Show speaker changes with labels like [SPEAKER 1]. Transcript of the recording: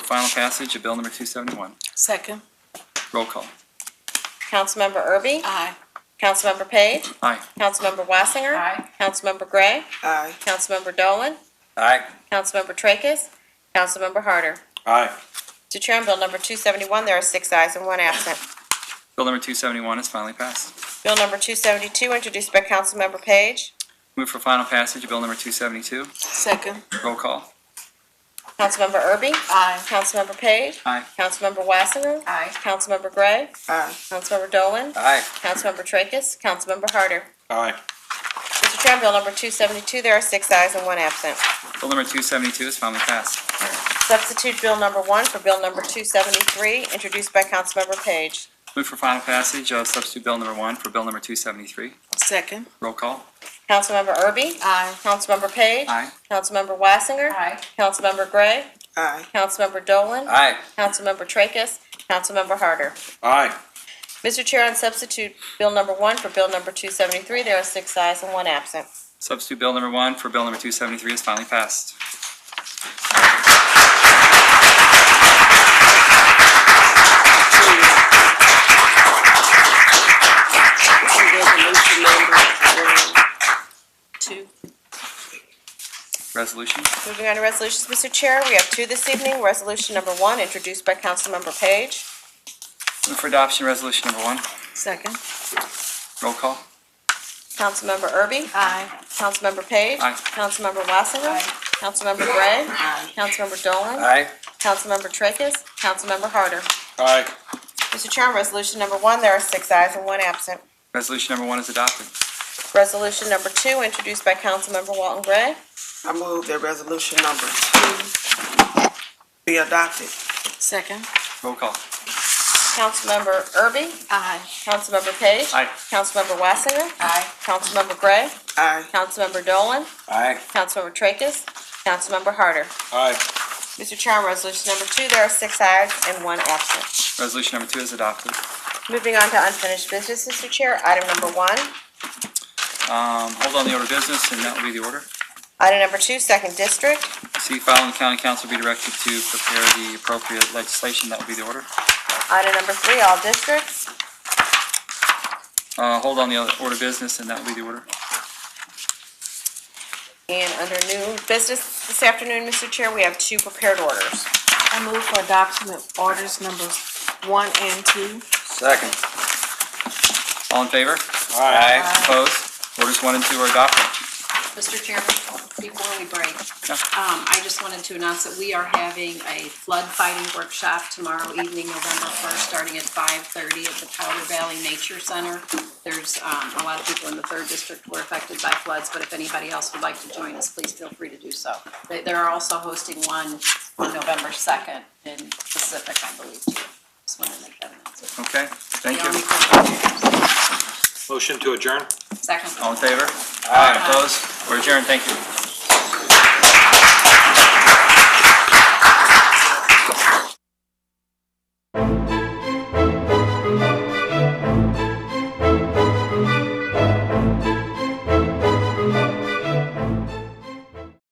[SPEAKER 1] final passage of Bill number 271.
[SPEAKER 2] Second.
[SPEAKER 1] Roll call.
[SPEAKER 3] Councilmember Erby?
[SPEAKER 2] Aye.
[SPEAKER 3] Councilmember Page?
[SPEAKER 1] Aye.
[SPEAKER 3] Councilmember Wassinger?
[SPEAKER 2] Aye.
[SPEAKER 3] Councilmember Gray?
[SPEAKER 2] Aye.
[SPEAKER 3] Councilmember Dolan?
[SPEAKER 4] Aye.
[SPEAKER 3] Councilmember Tracus? Councilmember Harder?
[SPEAKER 4] Aye.
[SPEAKER 3] To chair on bill number 271, there are six ayes and one absent.
[SPEAKER 1] Bill number 271 is finally passed.
[SPEAKER 3] Bill number 272, introduced by Councilmember Page.
[SPEAKER 1] Move for final passage of Bill number 272.
[SPEAKER 2] Second.
[SPEAKER 1] Roll call.
[SPEAKER 3] Councilmember Erby?
[SPEAKER 2] Aye.
[SPEAKER 3] Councilmember Page?
[SPEAKER 1] Aye.
[SPEAKER 3] Councilmember Wassinger?
[SPEAKER 2] Aye.
[SPEAKER 3] Councilmember Gray?
[SPEAKER 2] Aye.
[SPEAKER 3] Councilmember Dolan?
[SPEAKER 4] Aye.
[SPEAKER 3] Councilmember Tracus? Councilmember Harder?
[SPEAKER 4] Aye.
[SPEAKER 3] Mr. Chair, on bill number 272, there are six ayes and one absent.
[SPEAKER 1] Bill number 272 is finally passed.
[SPEAKER 3] Substitute bill number one for bill number 273, introduced by Councilmember Page.
[SPEAKER 1] Move for final passage of substitute Bill number 1 for Bill number 273.
[SPEAKER 2] Second.
[SPEAKER 1] Roll call.
[SPEAKER 3] Councilmember Erby?
[SPEAKER 2] Aye.
[SPEAKER 3] Councilmember Page?
[SPEAKER 1] Aye.
[SPEAKER 3] Councilmember Wassinger?
[SPEAKER 2] Aye.
[SPEAKER 3] Councilmember Gray?
[SPEAKER 2] Aye.
[SPEAKER 3] Councilmember Dolan?
[SPEAKER 4] Aye.
[SPEAKER 3] Councilmember Tracus? Councilmember Harder?
[SPEAKER 4] Aye.
[SPEAKER 3] Mr. Chair, on substitute bill number one for bill number 273, there are six ayes and one absent.
[SPEAKER 1] Substitute Bill number 1 for Bill number 273 is finally passed.
[SPEAKER 2] Resolution number um, two.
[SPEAKER 1] Resolution.
[SPEAKER 3] Moving on to resolutions, Mr. Chair, we have two this evening. Resolution number one, introduced by Councilmember Page.
[SPEAKER 1] Move for adoption Resolution number 1.
[SPEAKER 2] Second.
[SPEAKER 1] Roll call.
[SPEAKER 3] Councilmember Erby?
[SPEAKER 2] Aye.
[SPEAKER 3] Councilmember Page?
[SPEAKER 1] Aye.
[SPEAKER 3] Councilmember Wassinger?
[SPEAKER 2] Aye.
[SPEAKER 3] Councilmember Gray?
[SPEAKER 2] Aye.
[SPEAKER 3] Councilmember Dolan?
[SPEAKER 4] Aye.
[SPEAKER 3] Councilmember Tracus? Councilmember Harder?
[SPEAKER 4] Aye.
[SPEAKER 3] Mr. Chair, on resolution number one, there are six ayes and one absent.
[SPEAKER 1] Resolution number 1 is adopted.
[SPEAKER 3] Resolution number two, introduced by Councilmember Walton Gray.
[SPEAKER 5] I move that resolution number two be adopted.
[SPEAKER 2] Second.
[SPEAKER 1] Roll call.
[SPEAKER 3] Councilmember Erby?
[SPEAKER 2] Aye.
[SPEAKER 3] Councilmember Page?
[SPEAKER 1] Aye.
[SPEAKER 3] Councilmember Wassinger?
[SPEAKER 2] Aye.
[SPEAKER 3] Councilmember Gray?
[SPEAKER 5] Aye.
[SPEAKER 3] Councilmember Dolan?
[SPEAKER 4] Aye.
[SPEAKER 3] Councilmember Tracus? Councilmember Harder?
[SPEAKER 4] Aye.
[SPEAKER 3] Mr. Chair, on resolution number two, there are six ayes and one absent.
[SPEAKER 1] Resolution number 2 is adopted.
[SPEAKER 3] Moving on to unfinished business, Mr. Chair, item number one.
[SPEAKER 1] Um, Hold on the order of business, and that will be the order.
[SPEAKER 3] Item number two, second district.
[SPEAKER 1] See file and the county council be directed to prepare the appropriate legislation. That will be the order.
[SPEAKER 3] Item number three, all districts.
[SPEAKER 1] Uh, Hold on the other order of business, and that will be the order.
[SPEAKER 3] And under new business this afternoon, Mr. Chair, we have two prepared orders.
[SPEAKER 2] I move for adoption of orders numbers one and two.
[SPEAKER 4] Second.
[SPEAKER 1] All in favor?
[SPEAKER 4] Aye.
[SPEAKER 1] Opposed? Orders one and two are adopted.
[SPEAKER 6] Mr. Chairman, before we break,
[SPEAKER 1] Yeah.
[SPEAKER 6] um, I just wanted to announce that we are having a flood fighting workshop tomorrow evening, November first, starting at five thirty at the Powder Valley Nature Center. There's, um, a lot of people in the third district were affected by floods, but if anybody else would like to join us, please feel free to do so. They, they're also hosting one on November second in Pacific, I believe, too. Just wanted to make that announcement.
[SPEAKER 1] Okay, thank
[SPEAKER 6] The only
[SPEAKER 1] you.
[SPEAKER 6] question-
[SPEAKER 4] Motion to adjourn?
[SPEAKER 6] Second.
[SPEAKER 1] All in favor?
[SPEAKER 4] Aye.
[SPEAKER 1] Opposed? We're adjourned. Thank you.